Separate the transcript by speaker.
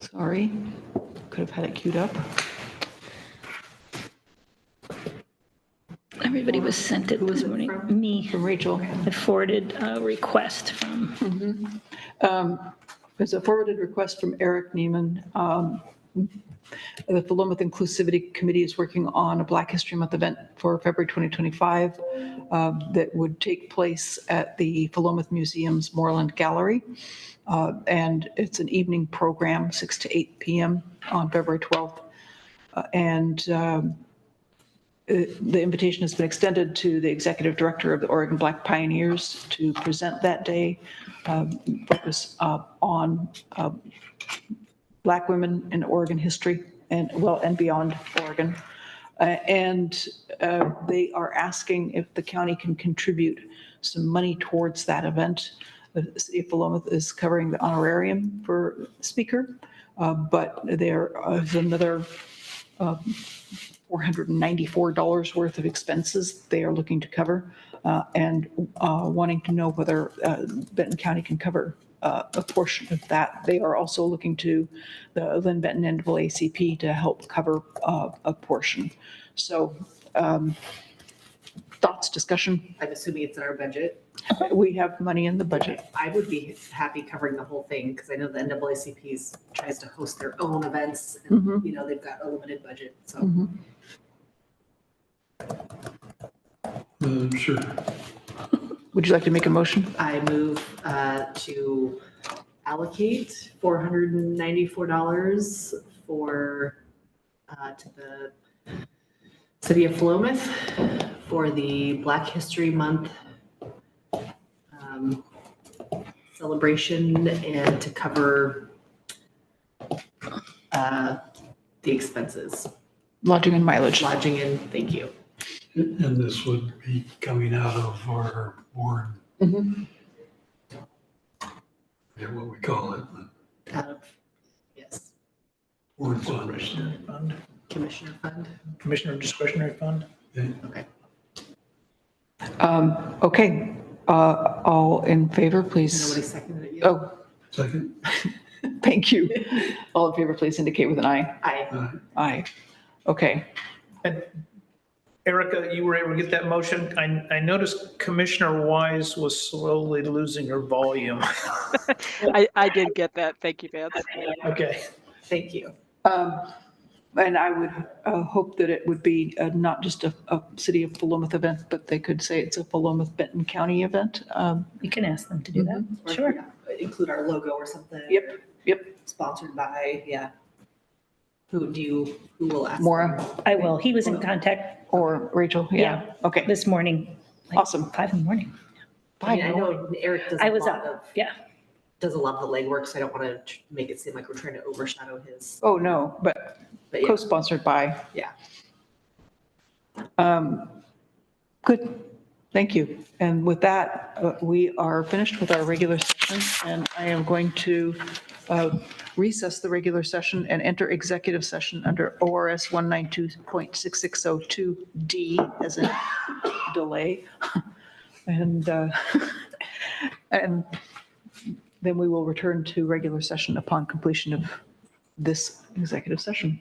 Speaker 1: Sorry, could have had it queued up.
Speaker 2: Everybody was sent it this morning. Me,
Speaker 1: From Rachel.
Speaker 2: I forwarded a request from,
Speaker 1: There's a forwarded request from Eric Neiman. um, that The Philomath Inclusivity Committee is working on a Black History Month event for February 2025 uh, that would take place at the Philomath Museum's Moreland Gallery. Uh, And it's an evening program, 6 to 8 PM on February 12th. Uh, And um, uh, the invitation has been extended to the executive director of the Oregon Black Pioneers to present that day, um, focus uh, on uh, black women in Oregon history and, well, and beyond Oregon. Uh, And uh, they are asking if the county can contribute some money towards that event. The city of Philomath is covering the honorarium for speaker, uh, but there is another $494 worth of expenses they are looking to cover uh, and uh, wanting to know whether uh, Benton County can cover uh, a portion of that. They are also looking to the Lynn Benton NAACP to help cover uh, a portion. So um, thoughts, discussion?
Speaker 3: I'm assuming it's in our budget.
Speaker 1: We have money in the budget.
Speaker 3: I would be happy covering the whole thing because I know the NAACP's tries to host their own events. and You know, they've got a limited budget,
Speaker 1: Mm-hmm.
Speaker 3: so.
Speaker 4: Um, Sure.
Speaker 1: Would you like to make a motion?
Speaker 3: I move uh, to allocate $494 for, uh, to the city of Philomath for the Black History Month um, celebration and to cover uh, the expenses,
Speaker 1: Lodging and mileage.
Speaker 3: lodging and thank you.
Speaker 4: And this would be coming out of our board,
Speaker 1: Mhm.
Speaker 4: yeah, what we call it,
Speaker 3: out of, Uh, yes,
Speaker 4: board funds.
Speaker 5: Fund,
Speaker 3: Commissioner Fund.
Speaker 5: Commissioner discretionary fund?
Speaker 3: Okay.
Speaker 1: Um, Okay, Uh, all in favor, please?
Speaker 3: Nobody seconded it yet?
Speaker 1: Oh,
Speaker 4: Second,
Speaker 1: Thank you. All in favor, please indicate with an eye.
Speaker 3: Aye.
Speaker 4: uh,
Speaker 1: Aye. Okay.
Speaker 5: Erica, you were able to get that motion? I, I noticed Commissioner Wise was slowly losing her volume.
Speaker 6: I, I did get that. Thank you, Vance.
Speaker 5: Okay.
Speaker 3: Thank you.
Speaker 1: Um, And I would uh, hope that it would be uh, not just a, a city of Philomath event, but they could say it's a Philomath Benton County event. Um,
Speaker 2: you can ask them to do that.
Speaker 3: Or
Speaker 2: Sure.
Speaker 3: Include our logo or something.
Speaker 1: Yep,
Speaker 3: or
Speaker 1: yep.
Speaker 3: Sponsored by, yeah. Who do you, who will ask?
Speaker 1: Maura
Speaker 2: I will. He was in contact
Speaker 1: or Rachel? Yeah.
Speaker 2: Yeah.
Speaker 1: Okay,
Speaker 2: this morning. like
Speaker 1: Awesome.
Speaker 2: Five in the morning.
Speaker 3: I mean, I
Speaker 1: Bye.
Speaker 3: know Eric does
Speaker 2: I
Speaker 3: a
Speaker 2: was
Speaker 3: lot of,
Speaker 2: up. Yeah.
Speaker 3: does a lot of the legwork, so I don't want to make it seem like we're trying to overshadow his,
Speaker 1: Oh, no, but
Speaker 3: but yeah,
Speaker 1: co-sponsored by.
Speaker 3: Yeah.
Speaker 1: Um, Good, thank you. And with that, uh, we are finished with our regular session, and I am going to uh, recess the regular session and enter executive session under ORS 192.6602D as a delay. And, uh, and then we will return to regular session upon completion of this executive session.